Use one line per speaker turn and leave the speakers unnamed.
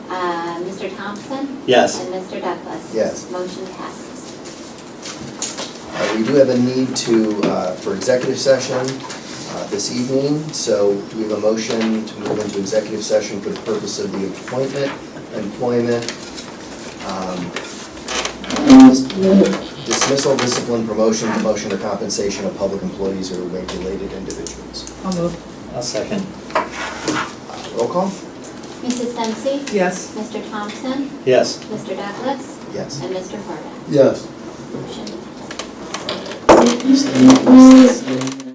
Mr. Uh, Thompson?
Yes.
And Mr. Douglas?
Yes.
Motion passes.
Uh, We do have a need to, uh, for executive session uh, this evening, so do we have a motion to move into executive session for the purpose of the appointment, employment, um, dismissal, discipline, promotion, promotion, or compensation of public employees or related individuals?
I'll move.
I'll second.
Uh, Roll call?
Mrs. Dempsey?
Yes.
Mr. Thompson?
Yes.
Mr. Douglas?
Yes.
And Mr. Horvath?
Yes.
Motion passes.